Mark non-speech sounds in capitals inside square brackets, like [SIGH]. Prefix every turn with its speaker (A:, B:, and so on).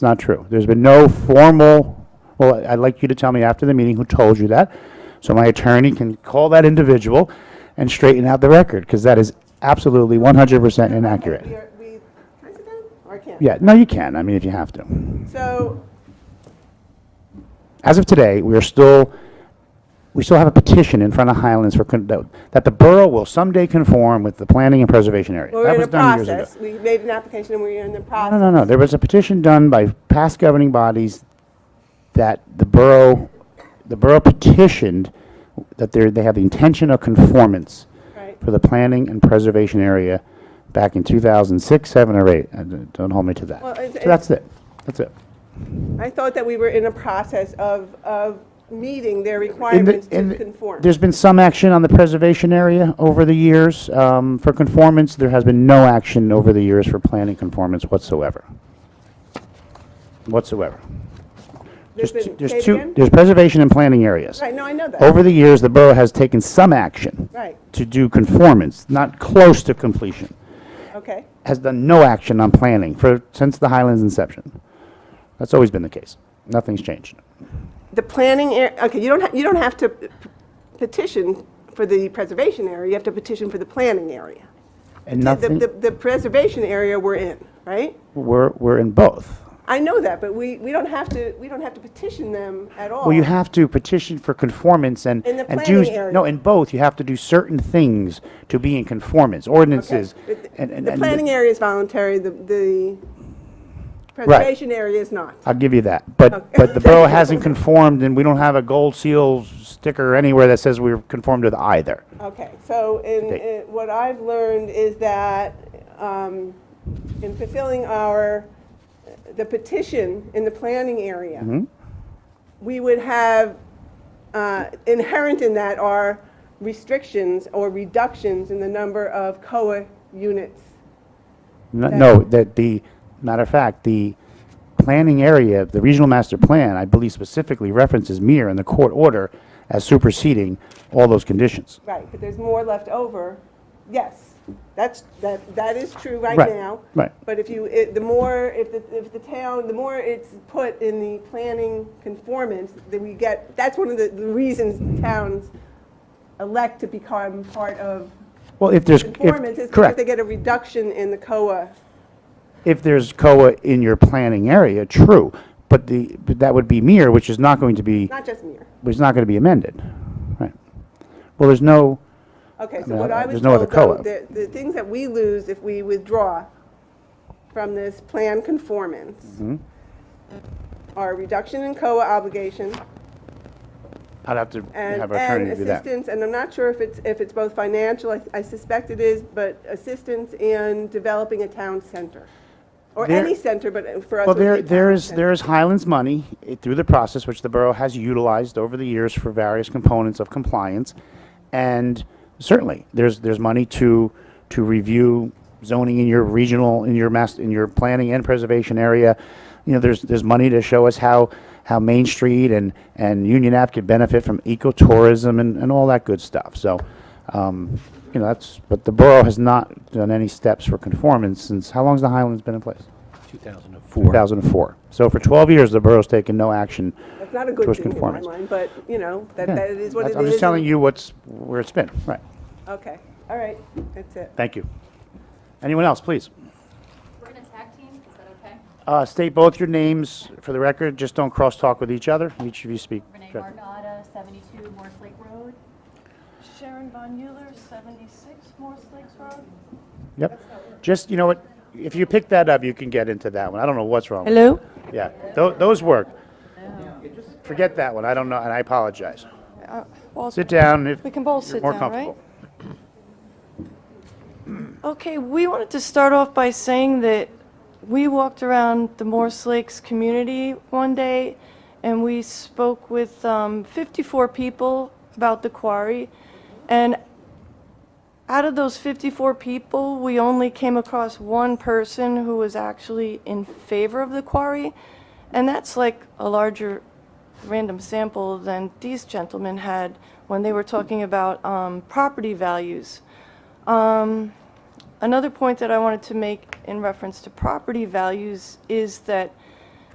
A: It's not true. There's been no formal, well, I'd like you to tell me after the meeting who told you that, so my attorney can call that individual and straighten out the record, because that is absolutely 100%
B: We
A: inaccurate.
B: are, we, can I sit down? Or I can't?
A: Yeah, no, you can, I mean, if you have to.
B: So,
A: As of today, we are still, we still have a petition in front of Highlands for, con- that that the borough will someday conform with the planning and preservation area.
B: we're
A: That
B: in
A: was
B: a
A: done years ago.
B: process. We made an application and we're in the
A: No,
B: process.
A: no, no, there was a petition done by past governing bodies that the borough, the borough petitioned that they're, they have the intention of conformance
B: Right.
A: for the planning and preservation area back in 2006, 7, or 8. Uh, d- Don't hold me to that.
B: Well, it's-
A: So that's it, that's it.
B: I thought that we were in a process of, of meeting
A: In
B: their
A: the-
B: requirements
A: in
B: to
A: the-
B: conform.
A: There's been some action on the preservation area over the years um, for conformance. There has been no action over the years for planning conformance whatsoever. Whatsoever. There's
B: been-
A: two- there's
B: say it
A: two-
B: again?
A: There's preservation and planning areas.
B: Right, no, I know that.
A: Over the years, the borough has taken some action
B: Right,
A: to do conformance, not close to completion. Oh.
B: okay.
A: Has done no action on planning for, since the Highlands inception. That's always been the case. Nothing's changed.
B: The planning, ar- okay, you don't, ha- you don't have to p- petition for the preservation area, you have to petition for the planning area.
A: And
B: The- The,
A: nothing,
B: the the preservation area we're in, right?
A: we're, we're in both.
B: I know that, but we, we don't have to, we don't have to petition them at all.
A: Well, you have to petition for conformance and,
B: Oh. In the
A: and do,
B: planning area.
A: no, in both, you have to do certain things to be in conformance, ordinances.
B: But the-
A: and- and-
B: The
A: and-
B: planning area is voluntary, the, the preservation area is not.
A: I'll give you that, but,
B: Okay.
A: but the
B: [LAUGHS]
A: borough hasn't conformed, and we don't have a gold seal sticker anywhere that says we're conformed with either.
B: Okay, so in,
A: Okay.
B: in- what I've learned is that um, in fulfilling our, the petition in the planning
A: Mm-hmm.
B: area, we would have, uh, inherent in that are restrictions or reductions in the number of COA units.
A: N- No, that the, matter of fact, the planning area, the regional master plan, I believe specifically references MIR in the court order as superseding all those conditions.
B: Right, but there's more left over. Yes, that's, that, that is true right
A: Right,
B: now.
A: right.
B: But if you, it- the more, if the, if the town, the more it's put in the planning conformance, that we get, that's one of the the reasons towns elect to become part of
A: Well, if there's,
B: conformance is
A: if,
B: because they
A: correct,
B: get a reduction in the COA.
A: if there's COA in your planning area, true, but the, but that would be MIR, which is not going to be,
B: Not just mere.
A: which is not going to be amended, right? Well, there's no,
B: Okay, so
A: mean,
B: what
A: I-
B: I was
A: there's no other co-op.
B: told, though, the, the things that we lose if we withdraw from this plan
A: Mm-hmm.
B: conformance are reduction in COA obligation
A: I'd have to
B: and,
A: have our
B: and
A: attorney do that.
B: assistance, and I'm not sure if it's, if it's both financial, I- I suspect it is, but assistance in developing a town center. Or
A: There-
B: any center, but for us.
A: Well,
B: it would
A: there,
B: be
A: there
B: town
A: is,
B: center.
A: there is Highlands money eh, through the process, which the borough has utilized over the years for various components of compliance. And certainly, there's, there's money to, to review zoning in your regional, in your mass, in your planning and preservation area. You know, there's, there's money to show us how, how Main Street and, and Union Ave could benefit from ecotourism and, and all that good stuff. So, um, you know, that's, but the borough has not done any steps for conformance since, how long's the Highlands been in place?
C: 2004.
A: 2004. So for 12 years, the borough's taken no action.
B: That's not a good
A: towards
B: thing in my
A: conformance.
B: mind, but, you know, that,
A: Yeah.
B: that it is what it
A: That's- I'm
B: is.
A: just telling
B: and-
A: you what's, where it's been. Right.
B: Okay, all right, that's it.
A: Thank you. Anyone else, please?
D: We're gonna tag team, is that okay?
A: Uh, State both your names for the record, just don't cross-talk with each other. Each of you speak.
D: Renee
A: directly.
D: Margada, 72 Morse Lake Road.
E: Sharon Von Euler, 76 Morse Lakes Road.
A: Yep. Just, you know what, if you pick that up, you can get into that one. I don't know what's wrong. with
E: Hello?
A: it. Yeah, Tho- those work. Forget that one, I don't know, and I apologize.
E: Well,
A: Sit down if
E: Uh, We can both
A: you're
E: sit
A: more
E: down, right?
A: comfortable.
E: Okay, we wanted to start off by saying that we walked around the Morse Lakes community one day, and we spoke with um, 54 people about the quarry. And out of those 54 people, we only came across one person who was actually in favor of the quarry, and that's like a larger random sample than these gentlemen had when they were talking about um, property values. Um, Another point that I wanted to make in reference to property values is that